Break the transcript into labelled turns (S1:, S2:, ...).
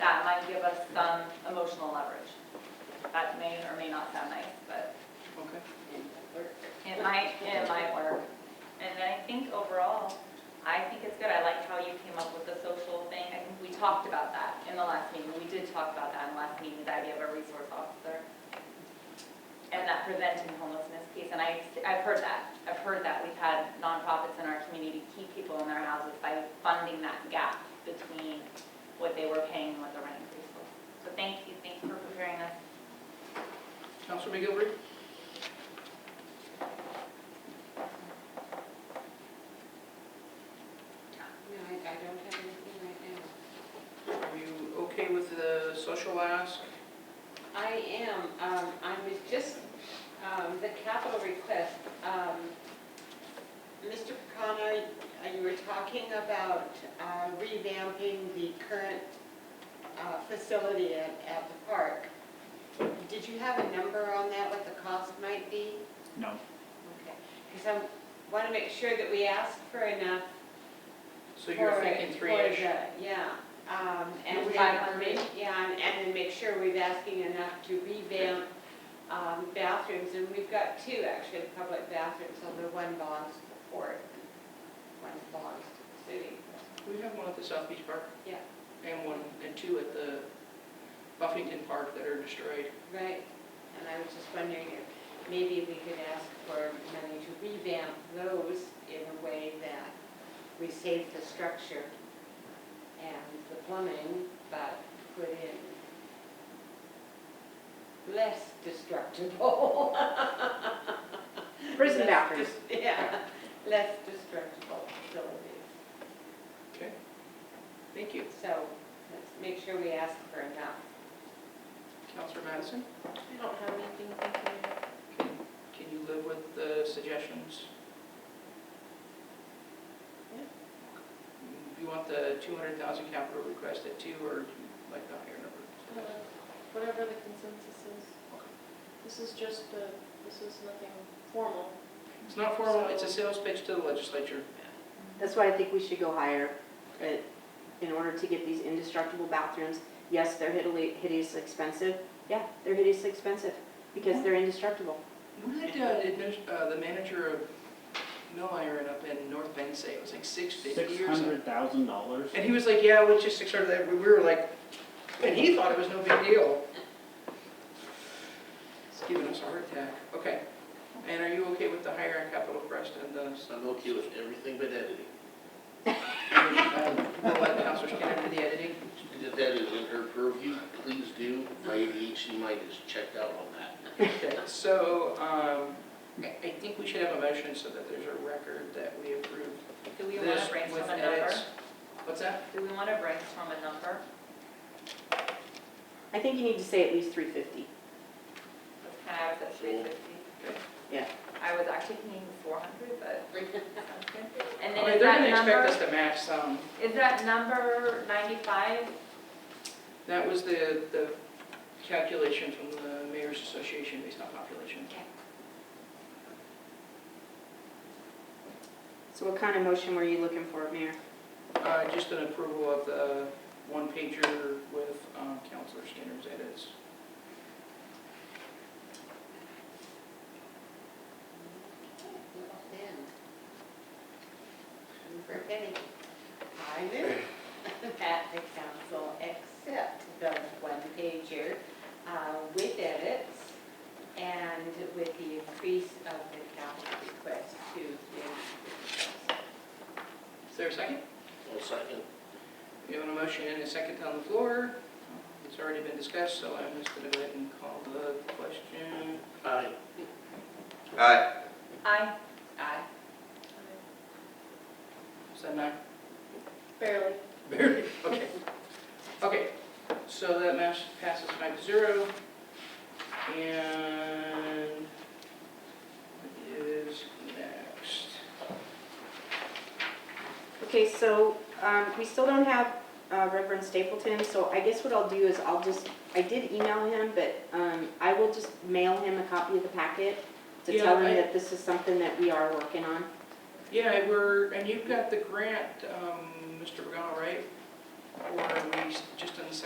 S1: that might give us some emotional leverage. That may or may not sound nice, but
S2: Okay.
S1: it might, it might work. And I think overall, I think it's good. I like how you came up with the social thing. I think we talked about that in the last meeting. We did talk about that in the last meeting, the idea of a resource officer. And that preventing homelessness piece, and I, I've heard that. I've heard that. We've had nonprofits in our community keep people in their houses by funding that gap between what they were paying and what the rent increase was. So thank you, thank you for preparing us.
S2: Counselor McGilvery?
S3: No, I, I don't have anything right now.
S2: Are you okay with the social ask?
S3: I am, um, I'm just, um, the capital request, um, Mr. Pecana, uh, you were talking about uh, revamping the current, uh, facility at, at the park. Did you have a number on that, what the cost might be?
S4: No.
S3: Okay, because I want to make sure that we ask for enough
S2: So you're
S3: for-
S2: thinking
S3: for
S2: three-ish?
S3: the- Yeah, um, and
S1: Maybe
S3: then-
S1: 500?
S3: Yeah, and- and then make sure we're asking enough to revamp um, bathrooms, and we've got two actually, public bathrooms, although one belongs to the port, one belongs to the city.
S2: We have one at the South Beach Park.
S3: Yeah.
S2: And one, and two at the Buffington Park that are destroyed.
S3: Right, and I was just wondering if maybe we could ask for money to revamp those in a way that we save the structure and the plumbing, but put in less destructible.
S5: Prison
S3: Less
S5: bathrooms.
S3: dis- Yeah, less destructible facilities.
S2: Okay. Thank you.
S3: So let's make sure we ask for enough.
S2: Counselor Madison,
S3: I don't have anything, thank you.
S2: can you live with the suggestions?
S3: Yeah.
S2: You want the 200,000 capital request at two or do you like the higher number?
S6: Whatever the consensus is. This is just a, this is nothing formal.
S2: It's not formal, it's a sales pitch to the legislature.
S5: That's why I think we should go higher, but in order to get these indestructible bathrooms, yes, they're hideously hideously expensive. Yeah, they're hideously expensive because they're indestructible.
S2: What did uh, the admin- uh, the manager of Mill Iron up in North Bend say? It was like six
S4: Six
S2: fifty or something.
S4: hundred thousand dollars?
S2: And he was like, yeah, we just six hundred, we were like, and he thought it was no big deal. It's giving us a heart attack. Okay. And are you okay with the higher capital crest and the,
S7: I'm okay with everything but editing.
S2: um, we'll let Counselor Skinner do the editing?
S7: If that is in her purview, please do. My ADHD mind is checked out on that.
S2: Okay, so, um, I I think we should have a motion so that there's a record that we approve
S1: Do we want
S2: this
S1: to
S2: with
S1: brainstorm a number?
S2: edits. What's that?
S1: Do we want to brainstorm a number?
S5: I think you need to say at least three fifty.
S1: That's kind of, I was at three fifty.
S5: Yeah.
S1: I was actually thinking four hundred, but sounds good. And then
S2: Okay,
S1: is
S2: They're gonna
S1: that
S2: expect us
S1: number,
S2: to match some.
S1: is that number ninety-five?
S2: That was the, the calculation from the mayor's association based on population.
S5: So what kind of motion were you looking for, Mayor?
S2: Uh, just an approval of the one pager with, um, Counselor Skinner's edits.
S3: Then, for Benny, I move that the council accept the one pager uh, with edits and with the increase of the capital request to the.
S2: Is there a second?
S7: Well, second,
S2: We have a motion and a second on the floor. It's already been discussed, so I'm just gonna go ahead and call the question.
S7: aye.
S1: I,
S3: Aye.
S2: Is that not
S6: Barely.
S2: Barely, okay. Okay, so that match passes five to zero. And what is next?
S5: Okay, so um, we still don't have uh, Reverend Stapleton, so I guess what I'll do is I'll just, I did email him, but um, I will just mail him a copy of the packet to
S2: Yeah,
S5: tell
S2: I-
S5: him that this is something that we are working on.
S2: Yeah, we're, and you've got the grant, um, Mr. Pagano, right? Or are we s- just on the second